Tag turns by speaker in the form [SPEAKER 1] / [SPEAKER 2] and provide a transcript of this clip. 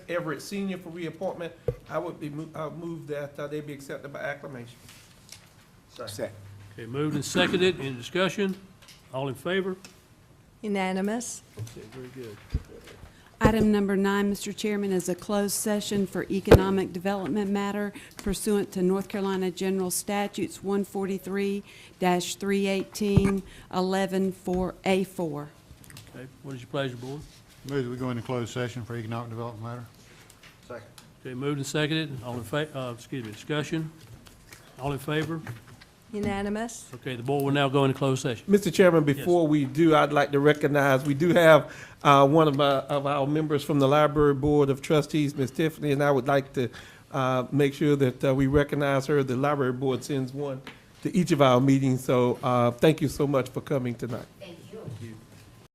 [SPEAKER 1] Everett Senior for reappointment, I would be, mo- I would move that uh, they be accepted by acclamation.
[SPEAKER 2] Second.
[SPEAKER 3] Okay, moved and seconded, in discussion, all in favor?
[SPEAKER 4] Unanimous.
[SPEAKER 3] Okay, very good.
[SPEAKER 5] Item number nine, Mr. Chairman, is a closed session for economic development matter pursuant to North Carolina General Statutes 143-318, 11 a 4
[SPEAKER 3] Okay, what is your pleasure, board?
[SPEAKER 6] Move that we go into closed session for economic development matter.
[SPEAKER 2] Second.
[SPEAKER 3] Okay, moved and seconded, all in fa, uh, excuse me, discussion, all in favor?
[SPEAKER 4] Unanimous.
[SPEAKER 3] Okay, the board will now go into closed session.
[SPEAKER 1] Mr. Chairman, before we do, I'd like to recognize, we do have uh, one of my, of our members from the Library Board of Trustees, Ms. Tiffany, and I would like to uh, make sure that uh, we recognize her. The Library Board sends one to each of our meetings, so uh, thank you so much for coming tonight.